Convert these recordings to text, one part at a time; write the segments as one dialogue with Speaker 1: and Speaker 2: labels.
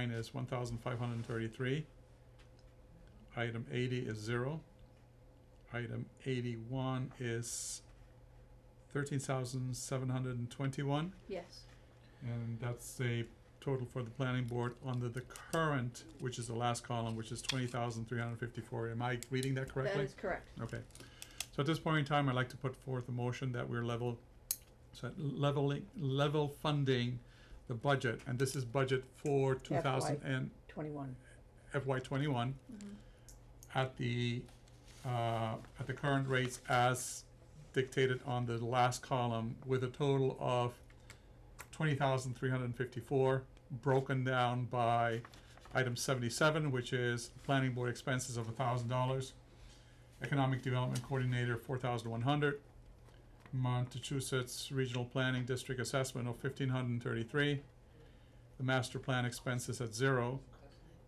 Speaker 1: Nine is one thousand five hundred and thirty-three. Item eighty is zero. Item eighty-one is thirteen thousand seven hundred and twenty-one,
Speaker 2: Yes.
Speaker 1: and that's a total for the planning board under the current, which is the last column, which is twenty thousand three hundred and fifty-four. Am I reading that correctly?
Speaker 2: That is correct.
Speaker 1: Okay, so at this point in time, I'd like to put forth a motion that we're level, so leveling, level funding the budget, and this is budget for two thousand and
Speaker 3: Twenty-one.
Speaker 1: FY twenty-one
Speaker 3: Mm-hmm.
Speaker 1: at the, uh, at the current rates as dictated on the last column with a total of twenty thousand three hundred and fifty-four, broken down by item seventy-seven, which is planning board expenses of a thousand dollars, economic development coordinator, four thousand one hundred, Montechusets Regional Planning District assessment of fifteen hundred and thirty-three, the master plan expenses at zero,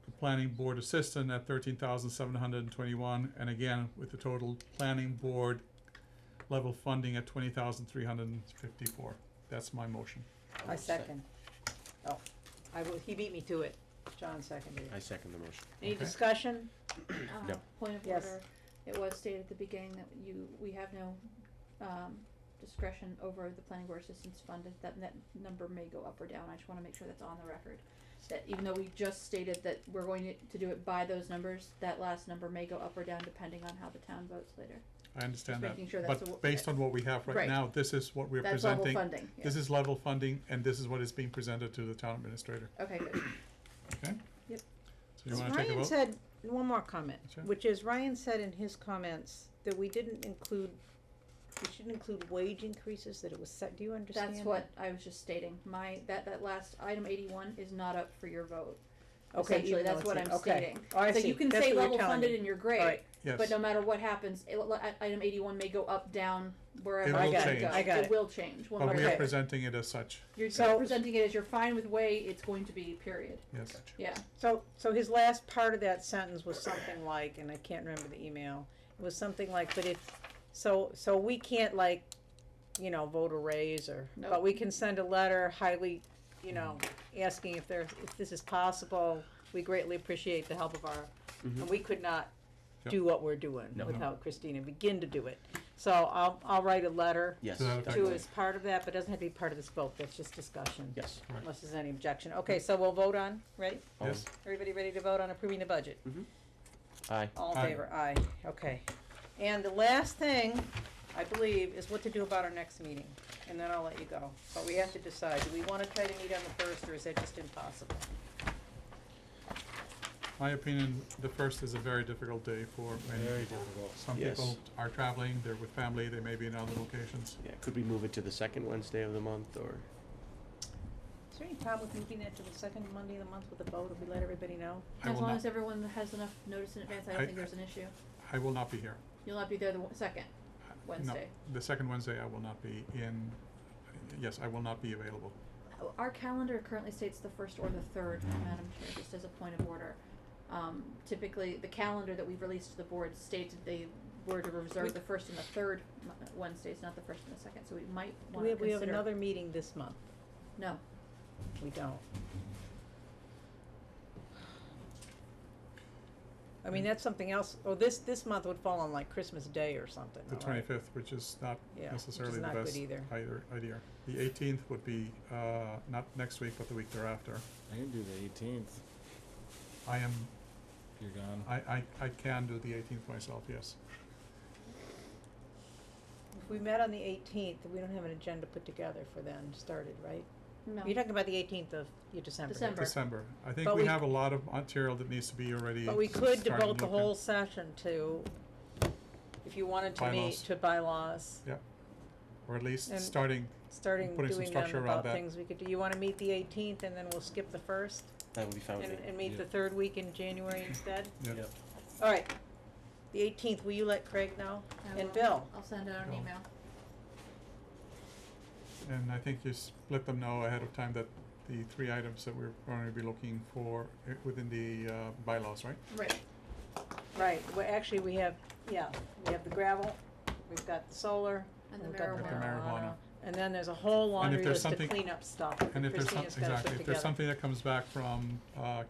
Speaker 1: the planning board assistant at thirteen thousand seven hundred and twenty-one, and again, with the total planning board level funding at twenty thousand three hundred and fifty-four. That's my motion.
Speaker 3: I second. Oh,
Speaker 2: I will, he beat me to it.
Speaker 3: John seconded
Speaker 4: I
Speaker 3: it.
Speaker 4: second the motion.
Speaker 3: Any
Speaker 1: Okay.
Speaker 3: discussion?
Speaker 2: Uh,
Speaker 4: No.
Speaker 2: Point of
Speaker 3: Yes.
Speaker 2: order, it was stated at the beginning that you, we have no, um, discretion over the planning board assistance fund, If that, that number may go up or down, I just wanna make sure that's on the record. That even though we just stated that we're going to, to do it by those numbers, that last number may go up or down depending on how the town votes later.
Speaker 1: I understand
Speaker 2: Just
Speaker 1: that,
Speaker 2: making sure that's a-
Speaker 1: but based on what we have right
Speaker 2: Right.
Speaker 1: now, this is what we're
Speaker 2: That's level
Speaker 1: presenting.
Speaker 2: funding, yeah.
Speaker 1: This is level funding, and this is what is being presented to the town administrator,
Speaker 2: Okay, good,
Speaker 1: okay?
Speaker 2: Yep.
Speaker 1: So you wanna take a
Speaker 3: Ryan
Speaker 1: vote?
Speaker 3: said, one more comment,
Speaker 1: Sure.
Speaker 3: which is Ryan said in his comments that we didn't include, we shouldn't include wage increases, that it was set, do you understand?
Speaker 2: that's what I was just stating, my, that, that last item eighty-one is not up for your vote,
Speaker 3: Okay, even
Speaker 2: essentially,
Speaker 3: though
Speaker 2: that's
Speaker 3: it's
Speaker 2: what
Speaker 3: in-
Speaker 2: I'm
Speaker 3: okay.
Speaker 2: stating.
Speaker 3: Oh, I
Speaker 2: So
Speaker 3: see.
Speaker 2: you can
Speaker 3: That's
Speaker 2: say
Speaker 3: what you're
Speaker 2: level
Speaker 3: telling
Speaker 2: funded
Speaker 3: me.
Speaker 2: and you're
Speaker 3: All
Speaker 2: great,
Speaker 3: right.
Speaker 1: Yes.
Speaker 2: But no matter what happens, it, li- i- item eighty-one may go up, down, wherever
Speaker 1: It
Speaker 2: it
Speaker 1: will
Speaker 2: goes.
Speaker 1: change.
Speaker 3: I got
Speaker 2: It
Speaker 3: it.
Speaker 2: will change, one way
Speaker 1: But
Speaker 2: or
Speaker 1: we are
Speaker 2: the
Speaker 3: Okay.
Speaker 2: other.
Speaker 1: presenting it as such,
Speaker 2: You're
Speaker 3: So-
Speaker 2: presenting it as you're fine with way it's going to be, period,
Speaker 1: yes.
Speaker 2: yeah.
Speaker 3: So, so his last part of that sentence was something like, and I can't remember the email, it was something like, but if, so, so we can't like, you know, vote a raise or,
Speaker 2: No.
Speaker 3: but we can send a letter highly, you know, asking if there, if this is possible, we greatly appreciate the help of our, and we could not do what we're doing
Speaker 4: No.
Speaker 3: without Christina, begin to do it. So I'll, I'll write a letter
Speaker 4: Yes.
Speaker 1: So that
Speaker 3: to
Speaker 4: definitely.
Speaker 3: as part of that, but doesn't have to be part of this vote, that's just discussion,
Speaker 4: Yes.
Speaker 1: Right.
Speaker 3: unless there's any objection. Okay, so we'll vote on, right?
Speaker 4: All in-
Speaker 1: Yes.
Speaker 3: Everybody ready to vote on approving the budget?
Speaker 4: Aye.
Speaker 3: All
Speaker 1: Aye.
Speaker 3: in favor, aye, okay. And the last thing, I believe, is what to do about our next meeting, and then I'll let you go. But we have to decide, do we wanna try to meet on the first, or is that just impossible?
Speaker 1: My opinion, the first is a very difficult day for many
Speaker 5: Very
Speaker 1: people.
Speaker 5: difficult.
Speaker 1: Some
Speaker 4: Yes.
Speaker 1: people are traveling, they're with family, they may be in other locations.
Speaker 4: Yeah, could we move it to the second Wednesday of the month or?
Speaker 3: Is there any problem with moving that to the second Monday of the month with a vote, if we let everybody know?
Speaker 1: I
Speaker 2: As
Speaker 1: will
Speaker 2: long
Speaker 1: not-
Speaker 2: as everyone has enough notice in advance, I
Speaker 1: I-
Speaker 2: don't think there's an issue.
Speaker 1: I will not be here.
Speaker 2: You'll not be there the w- second,
Speaker 1: I- no,
Speaker 2: Wednesday.
Speaker 1: The second Wednesday I will not be in, yes, I will not be available.
Speaker 2: O- Our calendar currently states the first or the third, Madam Chair, just as a point of order. Um, typically, the calendar that we've released to the board states that they were to
Speaker 3: We-
Speaker 2: reserve the first and the third Mo- Wednesdays, not the first and the second, so we might
Speaker 3: Do
Speaker 2: wanna
Speaker 3: we
Speaker 2: consider.
Speaker 3: have, we have another meeting this month?
Speaker 2: No,
Speaker 3: We don't. I mean, that's something else, oh, this, this month would fall on like Christmas Day or something,
Speaker 1: The
Speaker 3: all right?
Speaker 1: twenty-fifth, which is not
Speaker 3: Yeah, which is
Speaker 1: necessarily the
Speaker 3: not good
Speaker 1: best
Speaker 3: either.
Speaker 1: either, idea. The eighteenth would be, uh, not next week, but the week thereafter.
Speaker 5: I can do the eighteenth.
Speaker 1: I am,
Speaker 5: You're gone.
Speaker 1: I, I, I can do the eighteenth myself, yes.
Speaker 3: If we met on the eighteenth, we don't have an agenda put together for then started, right?
Speaker 2: no.
Speaker 3: You're talking about the eighteenth of your December.
Speaker 2: December.
Speaker 1: December. I think
Speaker 3: But
Speaker 1: we
Speaker 3: we-
Speaker 1: have a lot of material that needs to be already
Speaker 3: But we could
Speaker 1: started
Speaker 3: devote the
Speaker 1: looking.
Speaker 3: whole session to, if you wanted to meet,
Speaker 1: Bylaws.
Speaker 3: to bylaws,
Speaker 1: Yep. Or at least
Speaker 3: And-
Speaker 1: starting,
Speaker 3: starting
Speaker 1: Putting some
Speaker 3: doing
Speaker 1: structure
Speaker 3: them
Speaker 1: around
Speaker 3: about
Speaker 1: that.
Speaker 3: things we could do. You wanna meet the eighteenth and then we'll skip the first
Speaker 4: That would be fine with
Speaker 3: and,
Speaker 4: me.
Speaker 3: and meet
Speaker 5: Yeah.
Speaker 3: the third week in January instead?
Speaker 1: yeah,
Speaker 5: Yep.
Speaker 3: All right, the eighteenth, will you let Craig know?
Speaker 2: I
Speaker 3: And
Speaker 2: will-
Speaker 3: Bill?
Speaker 2: I'll send out an
Speaker 1: Bill.
Speaker 2: email.
Speaker 1: and I think you s- let them know ahead of time that the three items that we're going to be looking for i- within the uh, bylaws, right?
Speaker 2: Right.
Speaker 3: Right, well, actually, we have, yeah, we have the gravel, we've got the solar,
Speaker 2: And
Speaker 3: and
Speaker 2: the
Speaker 3: we've got the
Speaker 1: marijuana. Got the marijuana.
Speaker 3: marijuana. And then there's a whole
Speaker 1: And
Speaker 3: laundry
Speaker 1: if there's
Speaker 3: list of
Speaker 1: something-
Speaker 3: cleanup stuff that
Speaker 1: And if there's some,
Speaker 3: Christina's gotta put together.
Speaker 1: exactly, if there's something that comes back from, uh,